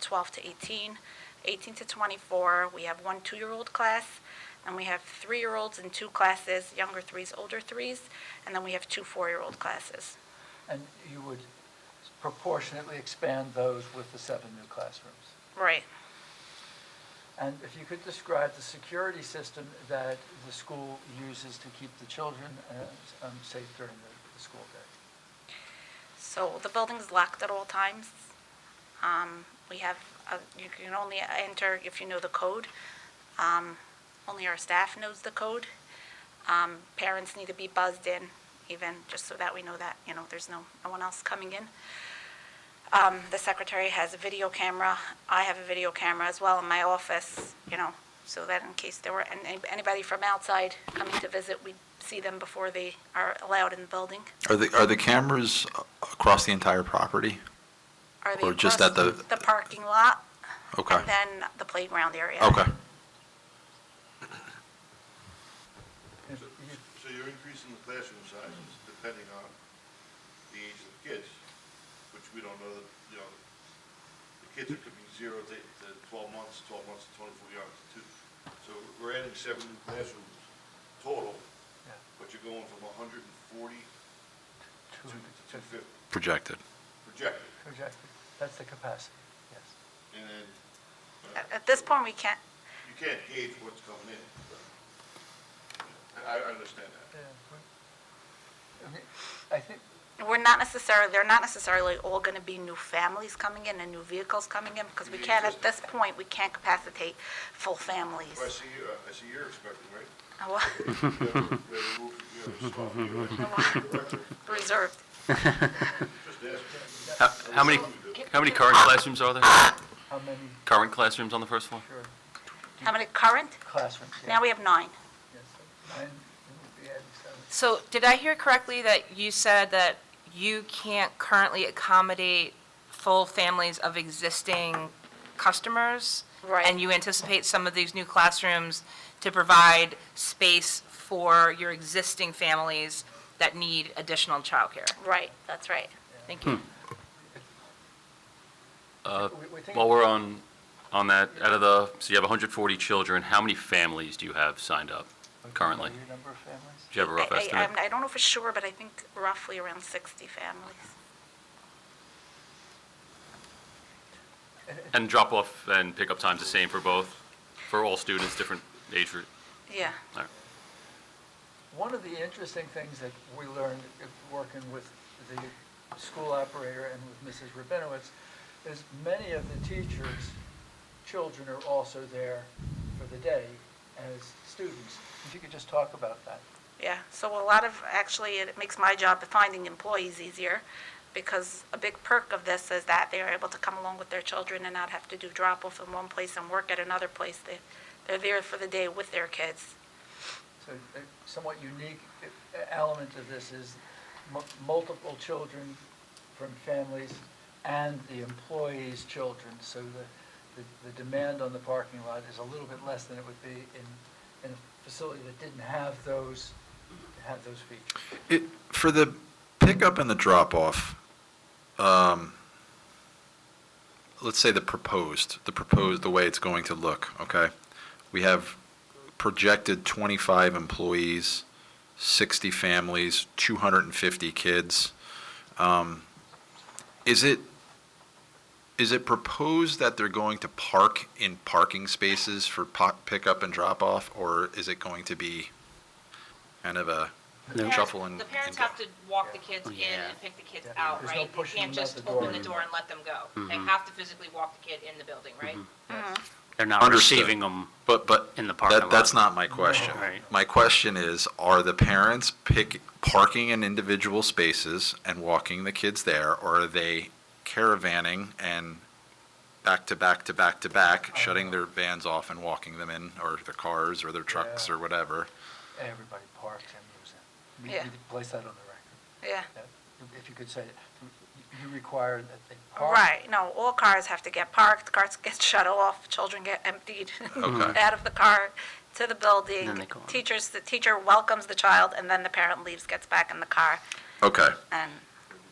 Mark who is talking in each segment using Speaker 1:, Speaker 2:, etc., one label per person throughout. Speaker 1: 12 to 18, 18 to 24. We have one two-year-old class, and we have three-year-olds in two classes, younger threes, older threes, and then we have two four-year-old classes.
Speaker 2: And you would proportionately expand those with the seven new classrooms.
Speaker 1: Right.
Speaker 2: And if you could describe the security system that the school uses to keep the children uh, um, safe during the- the school day.
Speaker 1: So the building's locked at all times. Um, We have, uh, you can only enter if you know the code. Um, Only our staff knows the code. Um, Parents need to be buzzed in even, just so that we know that, you know, there's no, no one else coming in. Um, The secretary has a video camera. I have a video camera as well in my office, you know, so that in case there were an- anybody from outside coming to visit, we'd see them before they are allowed in the building.
Speaker 3: Are the, are the cameras across the entire property?
Speaker 1: Are they
Speaker 3: Or just
Speaker 1: across
Speaker 3: at the-
Speaker 1: The parking lot,
Speaker 3: Okay,
Speaker 1: and then the playground area.
Speaker 3: okay.
Speaker 2: If
Speaker 4: So
Speaker 2: you-
Speaker 4: so you're increasing the classroom sizes depending on the age of the kids, which we don't know that, you know, the kids are could be zero to to twelve months, twelve months to twenty-four years, two. So we're adding seven new classrooms total,
Speaker 2: yeah,
Speaker 4: but you're going from hundred and forty
Speaker 2: two
Speaker 4: to
Speaker 2: would be
Speaker 4: two fifty
Speaker 3: Projected.
Speaker 4: projected,
Speaker 2: Projected, that's the capacity, yes.
Speaker 4: and then uh,
Speaker 1: At, at this point, we can't,
Speaker 4: you can't gauge what's coming in. I, I understand that.
Speaker 2: Yeah, we- I mean, I think,
Speaker 1: we're not necessarily, they're not necessarily all gonna be new families coming in and new vehicles coming in, because we can't, at this point, we can't capacitate full families.
Speaker 4: Well, I see you, I see you're expecting, right?
Speaker 1: Uh, well,
Speaker 4: You have a- you have a roof, you have a soft, you have a-
Speaker 1: Reserved.
Speaker 4: Just ask.
Speaker 5: How how many, how many current classrooms are there?
Speaker 2: how many,
Speaker 5: Current classrooms on the first floor?
Speaker 2: sure,
Speaker 1: How many current?
Speaker 2: classrooms? yeah,
Speaker 1: Now we have nine.
Speaker 2: yes, Nine, it would be adding seven.
Speaker 6: So did I hear correctly that you said that you can't currently accommodate full families of existing customers?
Speaker 1: Right.
Speaker 6: And you anticipate some of these new classrooms to provide space for your existing families that need additional childcare?
Speaker 1: Right, that's right.
Speaker 6: Thank
Speaker 3: Hmm.
Speaker 6: you.
Speaker 5: Uh,
Speaker 2: We- we think-
Speaker 5: While we're on, on that, out of the, so you have 140 children, how many families do you have signed up currently?
Speaker 2: Your number of families?
Speaker 5: Do you have a rough
Speaker 1: I- I-
Speaker 5: estimate?
Speaker 1: I'm- I don't know for sure, but I think roughly around 60 families.
Speaker 5: And drop-off and pickup time's the same for both, for all students, different age group?
Speaker 1: Yeah.
Speaker 5: All right.
Speaker 2: One of the interesting things that we learned uh, working with the school operator and with Mrs. Rabinowitz is many of the teachers' children are also there for the day as students. If you could just talk about that.
Speaker 1: Yeah, so a lot of, actually, it makes my job of finding employees easier, because a big perk of this is that they are able to come along with their children and not have to do drop-off in one place and work at another place. They, they're there for the day with their kids.
Speaker 2: So a somewhat unique uh, element of this is mu- multiple children from families and the employees' children. So the, the- the demand on the parking lot is a little bit less than it would be in, in a facility that didn't have those, have those features.
Speaker 3: It, for the pickup and the drop-off, um, let's say the proposed, the proposed, the way it's going to look, okay? We have projected 25 employees, 60 families, 250 kids. Um, Is it, is it proposed that they're going to park in parking spaces for po- pickup and drop-off? Or is it going to be kind of a
Speaker 6: The parents-
Speaker 3: shuffle and?
Speaker 6: The parents
Speaker 3: and Oh, go?
Speaker 6: have to walk the kids in and pick the kids out,
Speaker 2: There's no
Speaker 6: right? You
Speaker 2: pushing
Speaker 6: can't
Speaker 2: them out
Speaker 6: just
Speaker 2: the door.
Speaker 6: open the door and let them go. They
Speaker 3: Mm-hmm.
Speaker 6: have to physically walk the kid in the building, right?
Speaker 7: They're not
Speaker 3: Understood.
Speaker 7: receiving them.
Speaker 3: But, but.
Speaker 7: In the parking
Speaker 3: that- That's
Speaker 7: lot.
Speaker 3: not my question.
Speaker 7: Right.
Speaker 3: My question is, are the parents pick, parking in individual spaces and walking the kids there? Or are they caravanning and back to back to back to back, shutting their vans off and walking them in? Or their cars or their trucks
Speaker 2: Yeah.
Speaker 3: or whatever?
Speaker 2: Everybody parks and moves in. We-
Speaker 1: Yeah.
Speaker 2: We place that on the record.
Speaker 1: Yeah.
Speaker 2: Yeah. If you could say, it. you you require that they park.
Speaker 1: Right, no, all cars have to get parked, cars get shut off, children get emptied
Speaker 3: Okay.
Speaker 1: out of the car to the
Speaker 7: Then they
Speaker 1: building.
Speaker 7: go on.
Speaker 1: Teachers, the teacher welcomes the child, and then the parent leaves, gets back in the car,
Speaker 3: Okay.
Speaker 1: and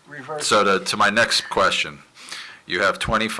Speaker 2: Reverse.
Speaker 3: So to, to my next question, you have 25